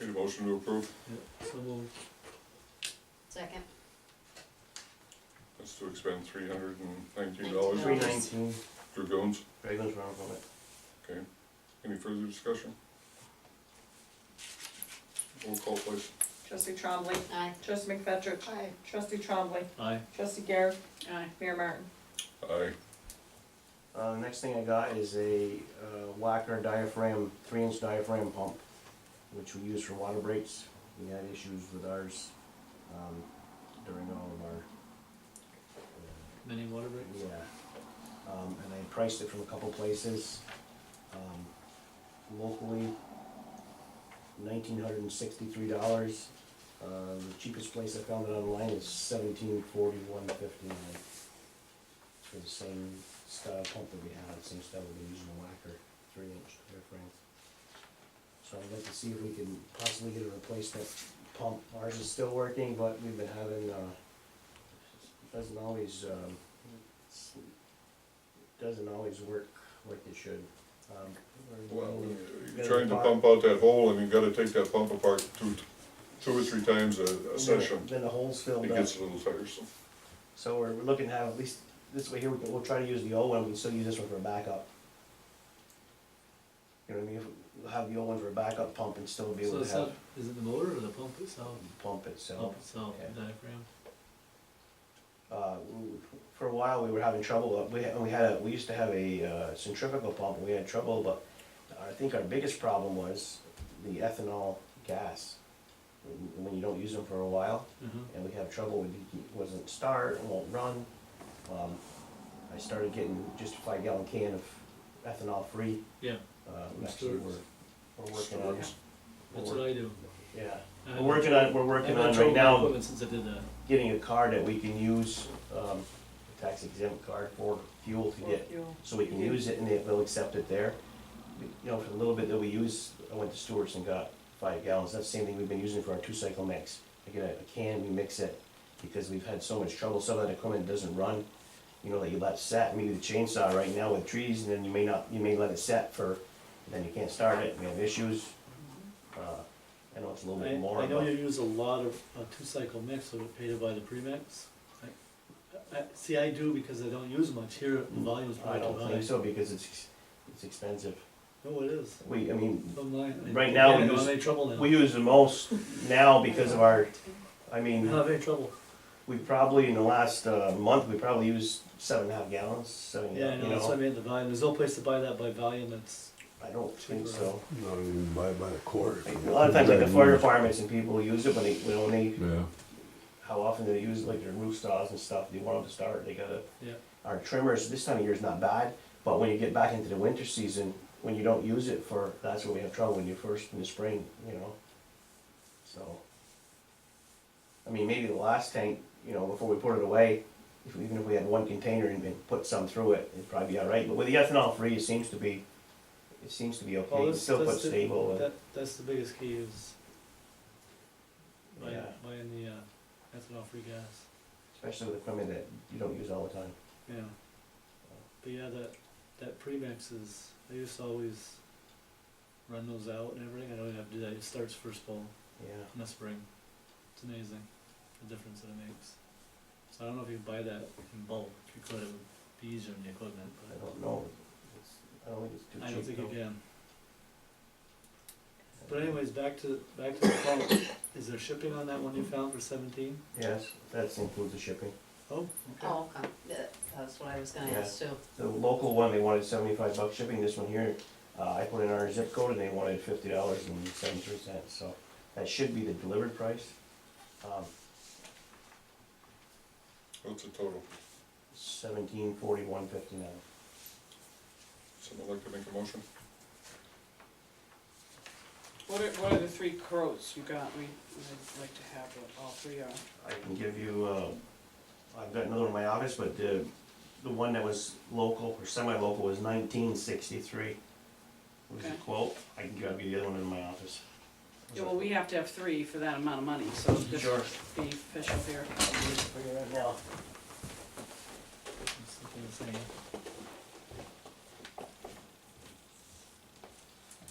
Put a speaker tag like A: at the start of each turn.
A: Need a motion to approve?
B: Yeah, so we'll,
C: Second.
A: That's to expend three hundred and nineteen dollars.
C: Three
D: Three
C: nine-
D: nineteen,
A: Drew Gomes,
D: Dragon's Run from it.
A: okay. Any further discussion? Roll call please.
E: Trustee Trombley.
C: Aye.
E: Trustee McFetrich. Aye. Trustee Trombley.
B: aye,
E: Trustee Garrett.
C: Aye.
E: Mayor Martin.
A: Aye.
D: Uh, the next thing I got is a, uh, Wacker diaphragm, three inch diaphragm pump, which we use for water breaks. We had issues with ours, um, during all of our, uh,
B: many water breaks,
D: Yeah, um, and I priced it from a couple places, um, locally, nineteen hundred and sixty-three dollars. Uh, the cheapest place I found it online is seventeen forty-one fifty-nine. For the same style pump that we had, same style we've been using, the whacker, three-inch airframe. So I'd like to see if we can possibly get a replacement pump, ours is still working, but we've been having, uh, doesn't always, um, s- doesn't always work like it should. Um, we're-
A: Well, you're trying to pump out that hole and you gotta take that pump apart two, two or three times a, a session.
D: Then the holes filled
A: It
D: up.
A: gets a little tiresome.
D: So we're, we're looking to have at least, this way here, we can, we'll try to use the old one, we can still use this one for a backup. You know what I mean, we'll have the old one for a backup pump and still be
B: so
D: able
B: it's
D: to
B: not,
D: have
B: is it the motor or the pump itself?
D: the pump itself.
B: Pump itself,
D: yeah.
B: the diaphragm,
D: Uh, we- for a while, we were having trouble, uh, we, had- we had a, we used to have a uh, centrifugal pump, and we had trouble, but I think our biggest problem was the ethanol gas. When- When you don't use them for a while,
B: uh-huh,
D: and we have trouble with it, it wasn't start, it won't run. Um, I started getting just a five gallon can of ethanol free,
B: yeah,
D: uh, we actually we're,
B: Stores.
D: we're working on.
A: Stores.
D: we're
B: that's
D: work-
B: what I do.
D: Yeah,
B: I
D: we're
B: haven't-
D: working on, we're
B: I
D: working
B: haven't
D: on right
B: sold my
D: now
B: Equipment since I did that,
D: getting a card that we can use, um, a tax exempt card for fuel to get,
E: Fuel.
D: so we can use it and they will accept it there. We- You know, for the little bit that we use, I went to Stewart's and got five gallons, that's the same thing we've been using for our two cycle mix. I get a- a can, we mix it, because we've had so much trouble, some of that equipment doesn't run, you know, that you let set, maybe the chainsaw right now with trees, and then you may not, you may let it set for, and then you can't start it, we have issues. Uh, I know it's a little bit more,
B: I, I know
D: but-
B: you use a lot of, a two-cycle mix, so it paid by the premix. I- I, see, I do because I don't use much here, the volume's
D: Mm, I
B: probably too
D: don't
B: high.
D: think so, because it's, ex- it's expensive.
B: No, it is.
D: We, I mean,
B: Bottom line, I-
D: Right now,
B: I
D: we
B: don't
D: use-
B: have any trouble now,
D: we use the most now because of our, I
B: I don't
D: mean,
B: have any trouble,
D: we probably, in the last, uh, month, we probably used seven and a half gallons, seven, you
B: yeah, I know, that's why I
D: know.
B: made the volume, there's no place to buy that by volume, it's,
D: I don't think so.
F: Not even by, by the quarter.
D: A lot of times, like the fire departments and people use it, but they, when only,
F: Yeah,
D: how often do they use, like their roof saws and stuff, they want them to start, they gotta.
B: yeah.
D: Our trimmers, this time of year is not bad, but when you get back into the winter season, when you don't use it for, that's when we have trouble, when you first, in the spring, you know? So. I mean, maybe the last tank, you know, before we put it away, if, even if we had one container and, and put some through it, it'd probably be all right, but with the ethanol free, it seems to be, it seems to be okay,
B: Well,
D: it's
B: oh, that's-
D: still
B: that's
D: put
B: the-
D: stable and,
B: That, that's the biggest key is buying,
D: Yeah.
B: buying the, uh, ethanol free gas,
D: especially with equipment that you don't use all the time.
B: yeah. But yeah, that, that premix is, I used to always run those out and everything, I don't even have to do that, it starts first bowl
D: Yeah,
B: in the spring. It's amazing, the difference that it makes. So I don't know if you buy that in bulk, if you could, it would be easier on the equipment,
D: I
B: but
D: don't know, it's, I don't think it's too cheap.
B: I don't think
D: though.
B: you can. But anyways, back to, back to the pump, is there shipping on that one you found for seventeen?
D: Yes, that includes the shipping.
B: Oh, okay.
C: Oh, okay, That- that's what I was gonna ask too.
D: The local one, they wanted seventy-five bucks shipping, this one here, uh, I put in our zip code and they wanted fifty dollars and seventy-three cents, so that should be the delivered price. Um,
A: What's the total?
D: seventeen forty-one fifty-nine.
A: Someone like to make a motion?
G: What are, what are the three quotes you got? We, I'd like to have what all three uh, are.
D: I can give you, uh, I've got another one in my office, but the, the one that was local or semi-local was nineteen sixty-three. Was the
G: Okay.
D: quote, I can give you the other one in my office.
G: Yeah, well, we have to have three for that amount of money, so just
D: Sure.
G: be official here.
D: I'll do it for you right now.
B: It's looking the same.